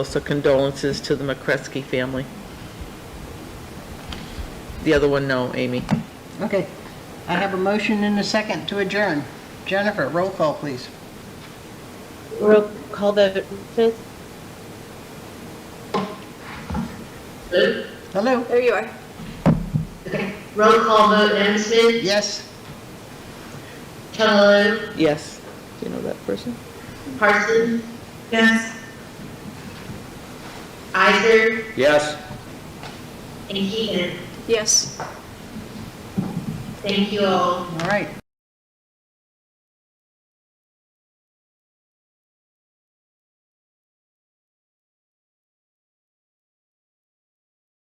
Also condolences to the McCretsky family. The other one, no, Amy. Okay, I have a motion and a second to adjourn. Jennifer, roll call, please. Roll call vote, please. Hello? There you are. Roll call vote, Anderson, Yes? Chugaloo, Yes. Do you know that person? Parsons. Yes. Isner Yes. and Keegan. Yes. Thank you all. All right.